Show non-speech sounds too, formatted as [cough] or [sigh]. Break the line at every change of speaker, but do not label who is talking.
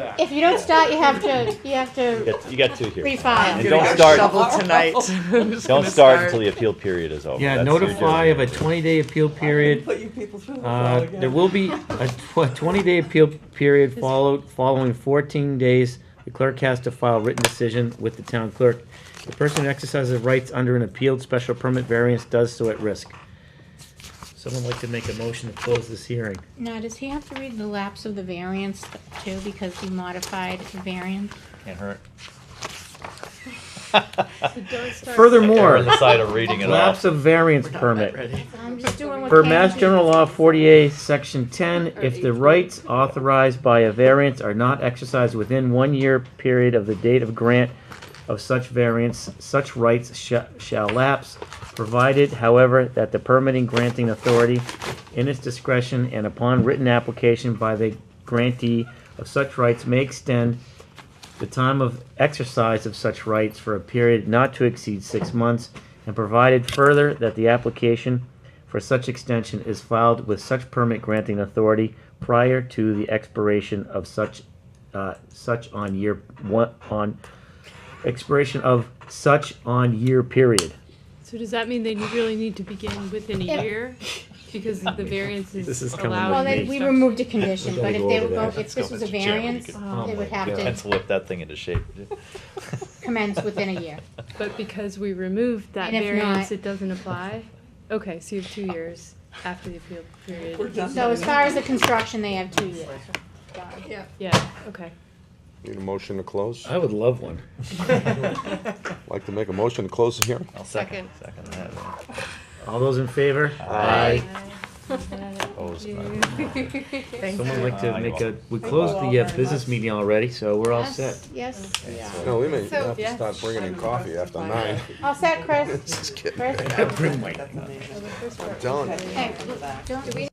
back.
If you don't start, you have to, you have
You
to
got, you got two here.
refile.
And don't start,
tonight.
don't start until the appeal period is over.
Yeah,
That's your
notify of a
job.
twenty-day appeal period.
Put you people through the
Uh,
file
There
again.
will be a twenty-day appeal period followed, following fourteen days. The clerk has to file a written decision with the town clerk. The person who exercises rights under an appealed special permit variance does so at risk. Someone like to make a motion to close this hearing?
Now, does he have to read the lapse of the variance too, because he modified the variance?
Can't hurt.
Furthermore,
On the side of reading it
[laughs] lapse
off.
of variance permit.
I'm just doing what.
Per
Ken
Mass
did.
General Law 48, Section 10, if the rights authorized by a variance are not exercised within one year period of the date of grant of such variance, such rights sha- shall lapse, provided, however, that the permitting granting authority, in its discretion and upon written application by the grantee of such rights, may extend the time of exercise of such rights for a period not to exceed six months, and provided further that the application for such extension is filed with such permit granting authority prior to the expiration of such, uh, such on year, one, on, expiration of such on year period.
So does that mean they really need to begin within
Yeah.
a year? Because the variance
This is
is
coming
allowed.
Well, then
in
we
such-
removed a condition,
We
but
gotta
if
go
they
over
were,
that.
going- if this was a
Let's go, Mr. Chairman, we
variance, they would have to
Pencil whip that thing into shape.
commence within a year.
But because we removed that
And if
variance,
not-
it doesn't apply? Okay, so you have two years after the appeal
We're
period.
done.
So as far as the construction, they have two years.
Yeah, okay.
Need a motion to close?
I would love one.
Like to make a motion to close the hearing?
I'll second, second that.
All those in favor?
Aye.
Opposed,
Someone like
Aye.
to make a, we closed the uh, business meeting already, so we're all set.
Yes,
No, we may have to
yeah.
start bringing in coffee after nine.
all set, Chris?
Just kidding.
Chris?
I'm telling you.
Hey, don't-
Do we